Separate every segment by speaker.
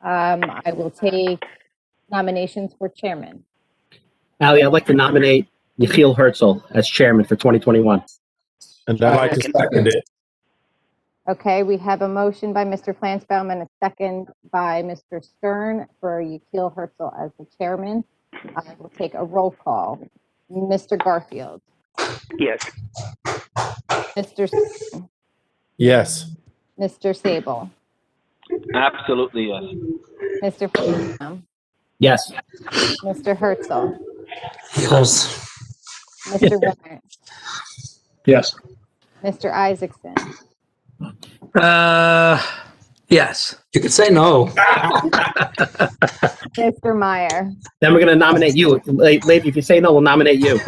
Speaker 1: Um, I will take nominations for chairman.
Speaker 2: Ali, I'd like to nominate Yechiel Herzl as chairman for 2021.
Speaker 3: And I'd like to second it.
Speaker 1: Okay, we have a motion by Mr. Flansbaum and a second by Mr. Stern for Yekeel Herzl as the chairman. I will take a roll call. Mr. Garfield,
Speaker 4: Yes.
Speaker 1: Mr. S-
Speaker 3: Yes.
Speaker 1: Mr. Sable,
Speaker 4: Absolutely, yes.
Speaker 1: Mr. Flansbaum,
Speaker 2: Yes.
Speaker 1: Mr. Herzl,
Speaker 5: Yes.
Speaker 1: Mr. Warren,
Speaker 2: Yes.
Speaker 1: Mr. Isaacson,
Speaker 6: Uh, yes.
Speaker 5: You could say no.
Speaker 1: Mr. Meyer,
Speaker 2: Then we're going to nominate you. La- Lady, if you say no, we'll nominate you.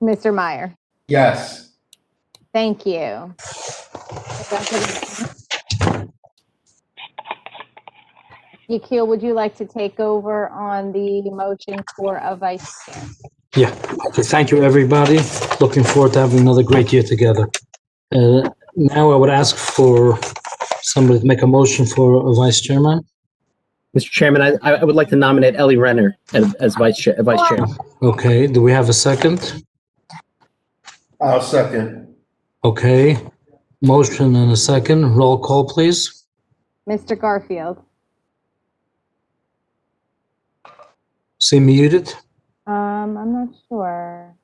Speaker 1: Mr. Meyer.
Speaker 3: Yes.
Speaker 1: Thank you. Yekeel, would you like to take over on the motion for a vice chair?
Speaker 5: Yeah. Okay, thank you, everybody. Looking forward to having another great year together. Uh, now I would ask for somebody to make a motion for a vice chairman.
Speaker 2: Mr. Chairman, I, I would like to nominate Ellie Renner as, as vice, chair, vice chair.
Speaker 5: Okay, do we have a second?
Speaker 3: I'll second.
Speaker 5: Okay, motion and a second. Roll call, please.
Speaker 1: Mr. Garfield,
Speaker 5: See muted.
Speaker 1: um, I'm not sure.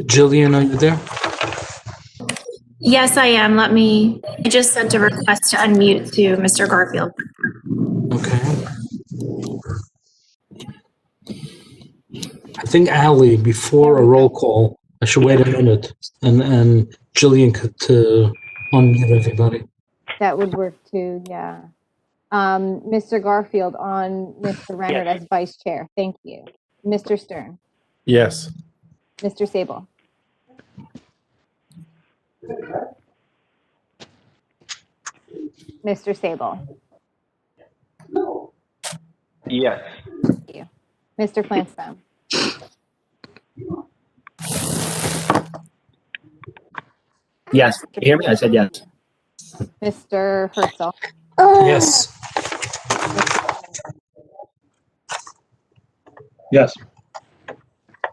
Speaker 5: Jillian, are you there?
Speaker 7: Yes, I am. Let me, I just sent a request to unmute to Mr. Garfield.
Speaker 5: Okay. I think Ali, before a roll call, I should wait a minute and, and Jillian could uh, unmute everybody.
Speaker 1: That would work too, yeah. Um, Mr. Garfield on Mr. Renard as vice chair. Thank you. Mr. Stern,
Speaker 3: Yes.
Speaker 1: Mr. Sable, Mr. Sable,
Speaker 4: Yes.
Speaker 1: Mr. Flansbrough,
Speaker 2: Yes. Can you hear me? I said yes.
Speaker 1: Mr. Herzl,
Speaker 5: Yes.
Speaker 2: Yes.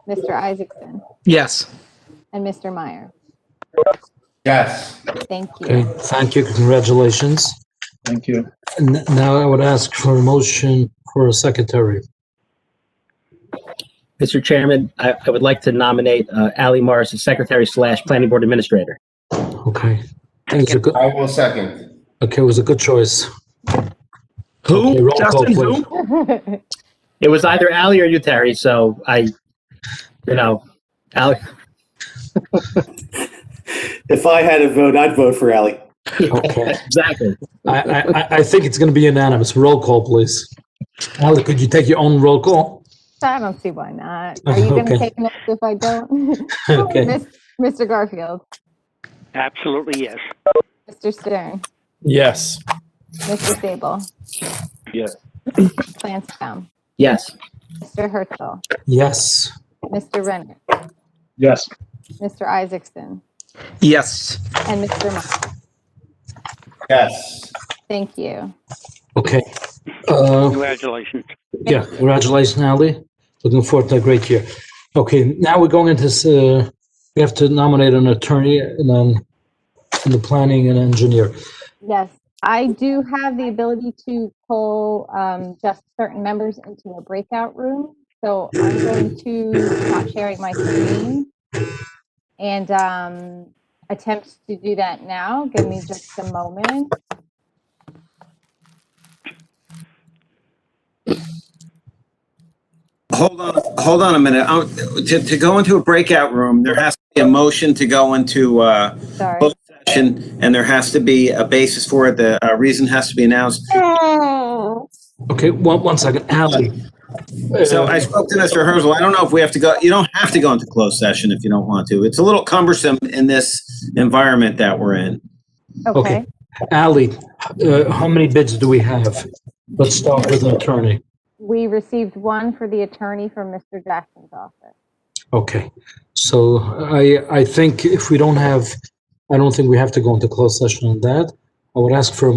Speaker 1: Mr. Isaacson,
Speaker 6: Yes.
Speaker 1: and Mr. Meyer.
Speaker 3: Yes.
Speaker 1: Thank
Speaker 5: Okay,
Speaker 1: you.
Speaker 5: thank you. Congratulations.
Speaker 2: Thank you.
Speaker 5: And now I would ask for a motion for a secretary.
Speaker 2: Mr. Chairman, I, I would like to nominate uh, Ali Morris as secretary slash planning board administrator.
Speaker 5: Okay. I think it's a good-
Speaker 3: I will second.
Speaker 5: Okay, it was a good choice. Okay,
Speaker 6: Who?
Speaker 5: roll call,
Speaker 6: Justin,
Speaker 5: please.
Speaker 6: who?
Speaker 2: It was either Ali or you, Terry. So I, you know, Ali,
Speaker 8: If I had a vote, I'd vote for Ally.
Speaker 5: Okay.
Speaker 2: exactly.
Speaker 5: I, I, I- I think it's going to be unanimous. Roll call, please. Ali, could you take your own roll call?
Speaker 1: I don't see why not. Are you going to
Speaker 5: Okay.
Speaker 1: take notes if I don't?
Speaker 5: Okay.
Speaker 1: Mis- Mr. Garfield,
Speaker 4: Absolutely, yes.
Speaker 1: Mr. Stern,
Speaker 3: Yes.
Speaker 1: Mr. Sable,
Speaker 4: Yes.
Speaker 1: Flansbaum,
Speaker 2: Yes.
Speaker 1: Mr. Herzl,
Speaker 5: Yes.
Speaker 1: Mr. Renner,
Speaker 2: Yes.
Speaker 1: Mr. Isaacson,
Speaker 6: Yes.
Speaker 1: and Mr. Meyer.
Speaker 3: Yes.
Speaker 1: Thank you.
Speaker 5: Okay. Uh,
Speaker 4: Congratulations.
Speaker 5: yeah. Congratulations, Ali. Looking forward to a great year. Okay. Now we're going into. s- Uh, we have to nominate an attorney and then the planning and engineer.
Speaker 1: Yes, I do have the ability to pull um, just certain members into a breakout room. So I'm going to stop sharing my screen and um, attempt to do that now. Give me just a moment.
Speaker 9: Hold on, hold on a minute. Um, To, to go into a breakout room, there has to be a motion to go into uh,
Speaker 1: Sorry.
Speaker 9: closed session, and there has to be a basis for it. The uh, reason has to be announced.
Speaker 5: Okay. One one second, Ali.
Speaker 9: So I spoke to Mr. Herzl. I don't know if we have to go, you don't have to go into closed session if you don't want to. It's a little cumbersome in this environment that we're in.
Speaker 1: Okay.
Speaker 5: Ali, uh, how many bids do we have? Let's start with an attorney.
Speaker 1: We received one for the attorney from Mr. Jackson's office.
Speaker 5: Okay, so I, I think if we don't have, I don't think we have to go into closed session on that. I would ask for a